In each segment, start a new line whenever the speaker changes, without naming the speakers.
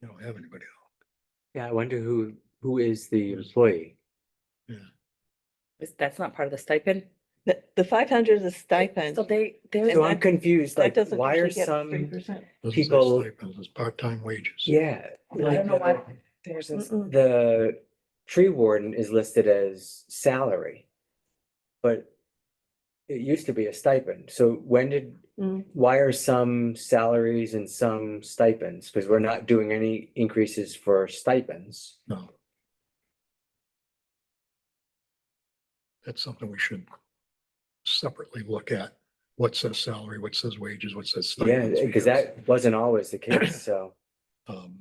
You don't have anybody else.
Yeah, I wonder who, who is the employee?
Is- That's not part of the stipend?
The, the five hundred is a stipend.
So they,
And
So
they're,
I'm
that-
confused,
That
like,
doesn't
why are
usually get
some,
3%.
Doesn't say
People-
stipends, It's part-time wages.
yeah.
I
like
don't know why
the-
there's, this-
Mm-mm.
The tree warden is listed as salary. But it used to be a stipend, so when did,
Mm.
why are some salaries and some stipends? Because we're not doing any increases for stipends.
No. That's something we should separately look at. What says salary, what says wages, what says
Yeah,
stipends.
because that wasn't always the case, so,
um,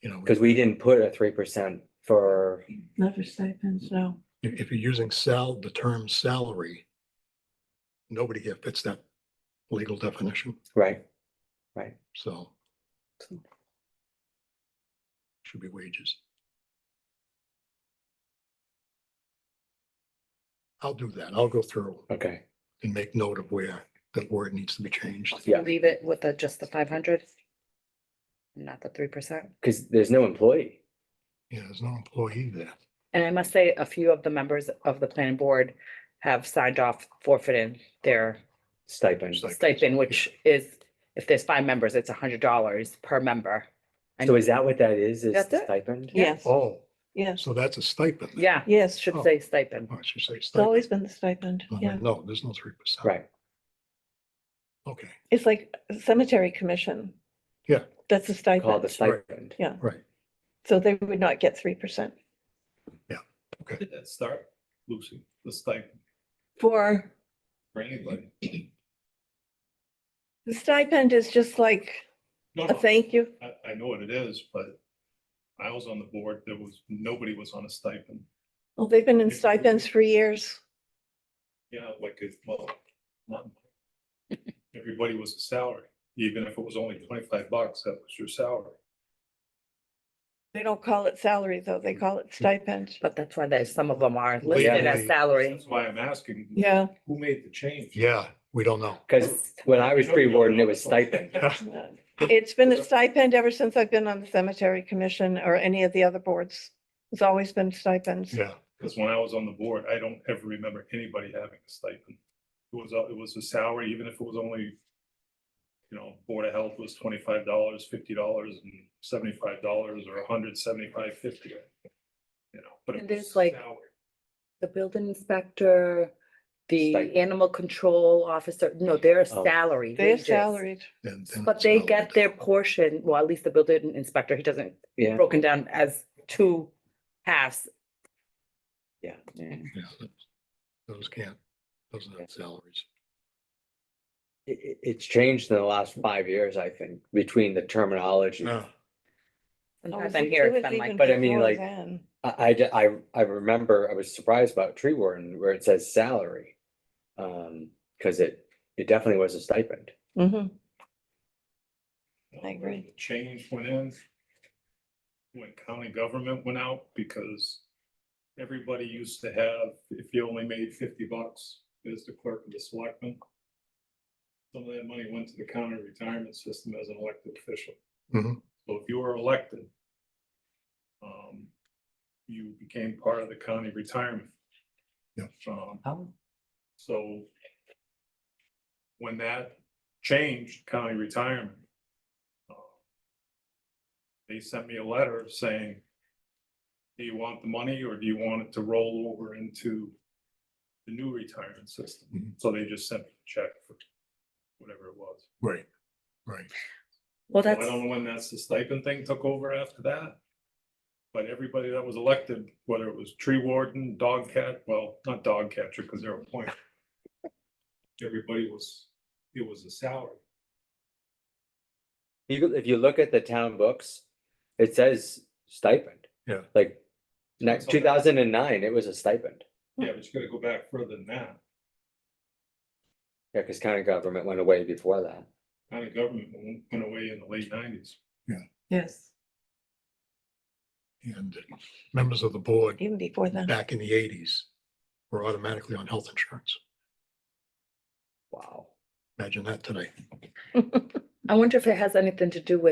You know,
because we didn't put a three percent for,
Not for stipends, no.
if, if you're using sal, the term salary, nobody here fits that legal definition,
right?
so. Should be wages. I'll do that. I'll go through
Okay,
and make note of where that word needs to be changed.
yeah.
leave it with the, just the five hundred? Not the three percent?
because there's no employee.
Yeah, there's no employee there.
And I must say, a few of the members of the planning board have signed off forfeiting their
stipend.
Stipend. Like-
stipend, which is, if there's five members, it's a hundred dollars per member.
So is that what that is, is
That's
the
it.
stipend?
Yes,
Oh,
yes,
so that's a stipend. then.
Yeah,
yes.
should
Oh.
say stipend.
Oh, I should say
It's always
stipend.
been the stipend,
No,
yeah.
No, there's no three percent.
Right,
Okay,
It's like cemetery commission.
Yeah.
That's a
called the
stipend.
Right.
stipend.
right.
So they would not get three percent
Did that start, Lucy, the stipend
for,
for
Mm-hmm.
anybody?
the stipend is just like
No,
a
no,
thank you.
I, I know what it is, but I was on the board, there was, nobody was on a stipend.
Well, they've been in stipends for years.
You know, like, it's, well, not. Everybody was a salary, even if it was only twenty-five bucks, that was your salary.
They don't call it salary, though. They call it stipend.
But that's why there's, some of them are
Well,
yeah,
listed as
they-
salary.
That's why I'm asking.
Yeah.
Who made the change?
Yeah, we don't know.
Because when I was
Don't
tree
know.
warden, it was stipend.
Uh, It's been a stipend ever since I've been on the cemetery commission or any of the other boards. It's always been stipends.
Yeah,
Because when I was on the board, I don't ever remember anybody having a stipend. It was, a- it was a salary, even if it was only, you know, Board of Health was twenty-five dollars, fifty dollars, and seventy-five dollars, or a hundred seventy-five, fifty. You know, but. it
And
was
there's like-
salary.
The building inspector, the
Stipend.
animal control officer, no, they're
Oh.
salary.
They're
wages.
salaried.
then- then
But
it's
they
not
get
like-
their portion, well, at least the building inspector, he doesn't,
Yeah,
broken down as two halves.
Yeah.
yeah, that's- Those can't, those are not salaries.
I- i- it's changed in the last five years, I think, between the terminology. I,
No,
Sometimes in here, it's been like,
But I mean, like-
It
I, d- I- I remember, I was surprised about tree warden where it says salary. Um, because it, it definitely was a stipend.
was I
You know, when
agree.
the Change went in. When county government went out, because everybody used to have, if you only made fifty bucks, as the clerk of the selectmen. Some of that money went to the county retirement system as an elected official.
Mhm.
So if you were elected. Um, you became part of the county retirement.
Yeah.
Um,
Oh.
so. When that changed county retirement. uh, They sent me a letter saying. Do you want the money or do you want it to roll over into the new retirement system?
Mhm.
So they just sent me a check for whatever it was.
Right, right.
well,
So I
that's,
don't know when that's the stipend thing took over after that. But everybody that was elected, whether it was tree warden, dog cat, well, not dog catcher, because they're appointed. Everybody was, it was a salary.
You, go- if you look at the town books, it says stipend.
Yeah.
Like,
That's all that-
two thousand and nine, it was a stipend.
Yeah, but you gotta go back further than that.
Yeah, because county government went away before that.
County government went- went away in the late nineties.
Yes.
And members of the board
Even before then.
back in the eighties were automatically on health insurance.
Wow.
Imagine that today.
I wonder if it has anything to do with